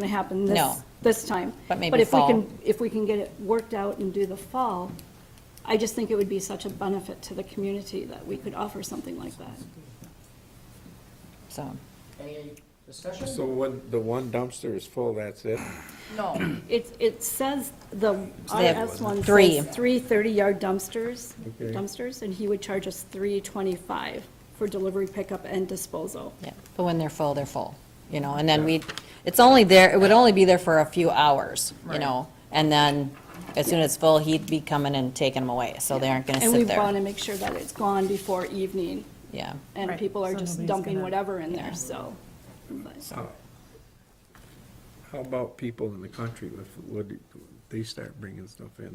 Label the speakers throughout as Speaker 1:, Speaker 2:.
Speaker 1: going to happen this.
Speaker 2: No.
Speaker 1: This time.
Speaker 2: But maybe
Speaker 1: if we
Speaker 2: fall.
Speaker 1: can, if we can get it worked out and do the fall, I just think it would be such a benefit to the community that we could offer something like that.
Speaker 2: So,
Speaker 3: Any discussion?
Speaker 4: So when the one dumpster is full, that's it?
Speaker 3: No.
Speaker 1: It, it says, the
Speaker 2: they have
Speaker 1: RS one
Speaker 2: three.
Speaker 1: says three 30-yard dumpsters,
Speaker 4: Okay.
Speaker 1: dumpsters, and he would charge us 325 for delivery, pickup, and disposal.
Speaker 2: yeah, but when they're full, they're full, you know, and then we, it's only there, it would only be there for a few hours, you know? And then as soon as it's full, he'd be coming and taking them away, so they aren't gonna
Speaker 1: And we
Speaker 2: sit
Speaker 1: want to
Speaker 2: there.
Speaker 1: make sure that it's gone before evening,
Speaker 2: Yeah,
Speaker 1: and people are just dumping whatever in there, so. but-
Speaker 4: How about people in the country, if, would they start bringing stuff in?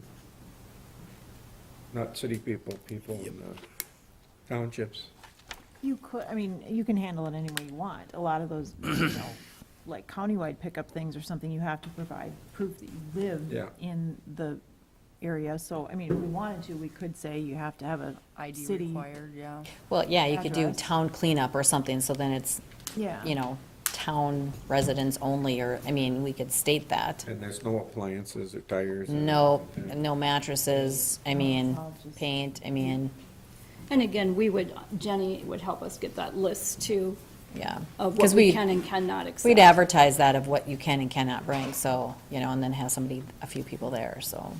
Speaker 4: Not city people, people in the townships.
Speaker 5: You could, I mean, you can handle it any way you want. A lot of those, you know, like countywide pickup things or something, you have to provide proof that you
Speaker 4: Yeah.
Speaker 5: live in the area. So, I mean, if we wanted to, we could say you have to have a
Speaker 6: ID
Speaker 5: city.
Speaker 6: required, yeah.
Speaker 2: well, yeah, you could do
Speaker 5: Address.
Speaker 2: town cleanup or something, so then it's,
Speaker 5: Yeah.
Speaker 2: you know, town residents only, or, I mean, we could state that.
Speaker 4: And there's no appliances or tires. or-
Speaker 2: No, no mattresses, I mean,
Speaker 5: I'll just-
Speaker 2: paint, I mean,
Speaker 1: And again, we would, Jenny would help us get that list too
Speaker 2: yeah.
Speaker 1: of what
Speaker 2: Because
Speaker 1: we can and cannot accept.
Speaker 2: We'd advertise that of what you can and cannot bring, so, you know, and then have somebody, a few people there, so.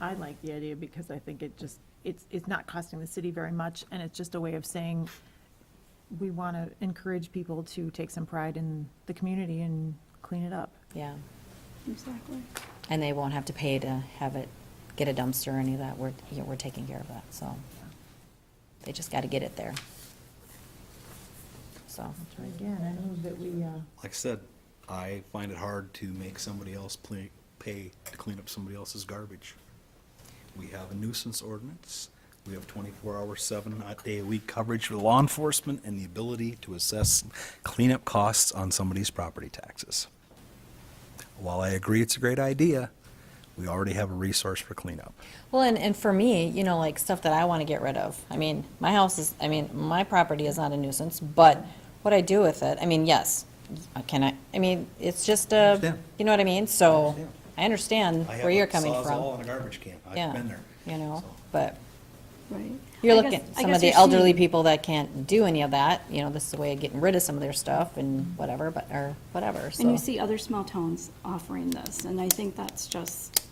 Speaker 5: I like the idea because I think it just, it's, it's not costing the city very much and it's just a way of saying we want to encourage people to take some pride in the community and clean it up.
Speaker 2: Yeah,
Speaker 1: Exactly.
Speaker 2: and they won't have to pay to have it, get a dumpster or any of that, we're, yeah, we're taking care of that, so. They just gotta get it there. So,
Speaker 5: Again, I move that we, uh,
Speaker 7: like I said, I find it hard to make somebody else ple- pay to clean up somebody else's garbage. We have a nuisance ordinance. We have twenty-four hour, seven day a week coverage for law enforcement and the ability to assess cleanup costs on somebody's property taxes. While I agree it's a great idea, we already have a resource for cleanup.
Speaker 2: well, and, and for me, you know, like, stuff that I wanna get rid of, I mean, my house is, I mean, my property is not a nuisance, but what I do with it, I mean, yes, I can I, I mean, it's just a,
Speaker 7: understand.
Speaker 2: you know what I mean, so,
Speaker 7: understand.
Speaker 2: I understand where you're coming from.
Speaker 7: I have a Sawzall and a garbage can.
Speaker 2: Yeah,
Speaker 7: I've been there.
Speaker 2: You know,
Speaker 7: So-
Speaker 2: but
Speaker 1: Right.
Speaker 2: you're
Speaker 1: I
Speaker 2: looking
Speaker 1: guess-
Speaker 2: at
Speaker 1: I
Speaker 2: some
Speaker 1: guess
Speaker 2: of the
Speaker 1: you're
Speaker 2: elderly
Speaker 1: seeing-
Speaker 2: people that can't do any of that, you know, this is a way of getting rid of some of their stuff and whatever, but, or whatever, so.
Speaker 1: And you see other small towns offering this, and I think that's just,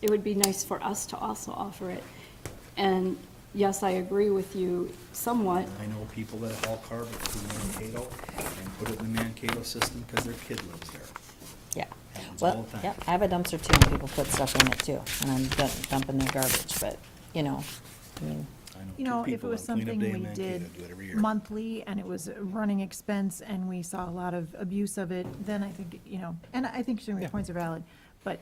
Speaker 1: it would be nice for us to also offer it. And yes, I agree with you somewhat,
Speaker 7: I know people that haul garbage to Mankato and put it in the Mankato system because their kid lives there.
Speaker 2: Yeah,
Speaker 7: Happens all
Speaker 2: well,
Speaker 7: the time.
Speaker 2: yeah, I have a dumpster too, and people put stuff in it too, and I'm dum- dumping their garbage, but, you know, I mean,
Speaker 7: I
Speaker 5: You
Speaker 7: know
Speaker 5: know,
Speaker 7: two
Speaker 5: if it
Speaker 7: people
Speaker 5: was
Speaker 7: on cleanup
Speaker 5: something
Speaker 7: day in
Speaker 5: we
Speaker 7: Mankato
Speaker 5: did
Speaker 7: do it every year.
Speaker 5: monthly and it was a running expense and we saw a lot of abuse of it, then I think, you know, and I think some of your points are valid, but.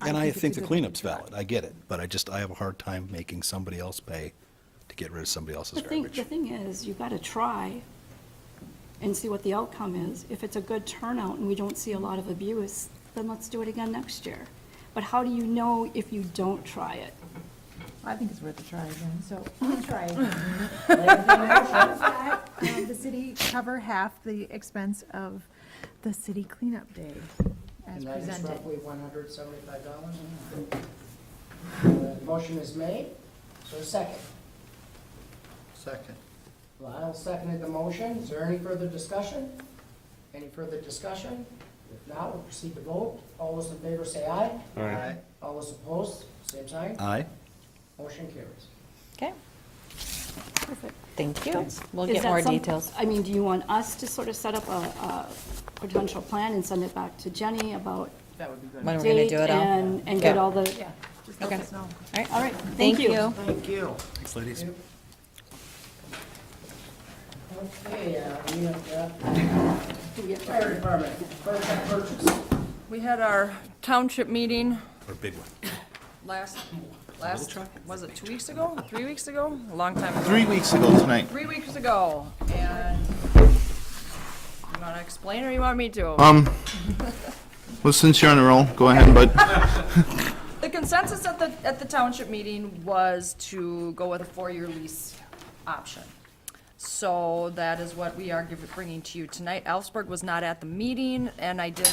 Speaker 7: And I
Speaker 5: it's a
Speaker 7: think the
Speaker 5: good
Speaker 7: cleanup's
Speaker 5: idea.
Speaker 7: valid, I get it, but I just, I have a hard time making somebody else pay to get rid of somebody else's
Speaker 1: The thing,
Speaker 7: garbage.
Speaker 1: the thing is, you've got to try and see what the outcome is. If it's a good turnout and we don't see a lot of abuse, then let's do it again next year. But how do you know if you don't try it?
Speaker 5: I think it's worth a try again, so I'll try again. Like, you know, she's got, um, The city cover half the expense of the city cleanup day as
Speaker 3: And that is
Speaker 5: presented.
Speaker 3: roughly one hundred seventy-five dollars. Motion is made, so second. Second. Lyle seconded the motion, is there any further discussion? Any further discussion? If not, we'll proceed to vote, all those in favor say aye.
Speaker 4: Aye. Aye.
Speaker 3: All those opposed, same sign,
Speaker 7: Aye,
Speaker 3: motion carries.
Speaker 2: okay,
Speaker 1: Perfect.
Speaker 2: thank you. We'll
Speaker 1: Is
Speaker 2: get
Speaker 1: that
Speaker 2: more
Speaker 1: some-
Speaker 2: details.
Speaker 1: I mean, do you want us to sort of set up a, a potential plan and send it back to Jenny about
Speaker 6: That would be good.
Speaker 2: When we're gonna
Speaker 1: date
Speaker 2: do it all.
Speaker 1: and, and get
Speaker 2: Yeah.
Speaker 1: all the,
Speaker 5: Yeah, just let
Speaker 2: Okay.
Speaker 5: us know.
Speaker 1: all right, thank you.
Speaker 3: Thank you.
Speaker 7: thanks, ladies.
Speaker 3: Okay, uh, we have, uh, fire department, fire truck purchase.
Speaker 6: We had our township meeting
Speaker 7: Or a big one.
Speaker 6: last, last, was it two weeks ago, three weeks ago? A long time ago.
Speaker 8: Three weeks ago tonight.
Speaker 6: Three weeks ago, and you wanna explain or you want me to?
Speaker 8: Um, well, since you're on the roll, go ahead, bud.
Speaker 6: The consensus at the, at the township meeting was to go with a four-year lease option.
Speaker 2: So that is what we are giving- bringing to you tonight. Alsberg was not at the meeting, and I did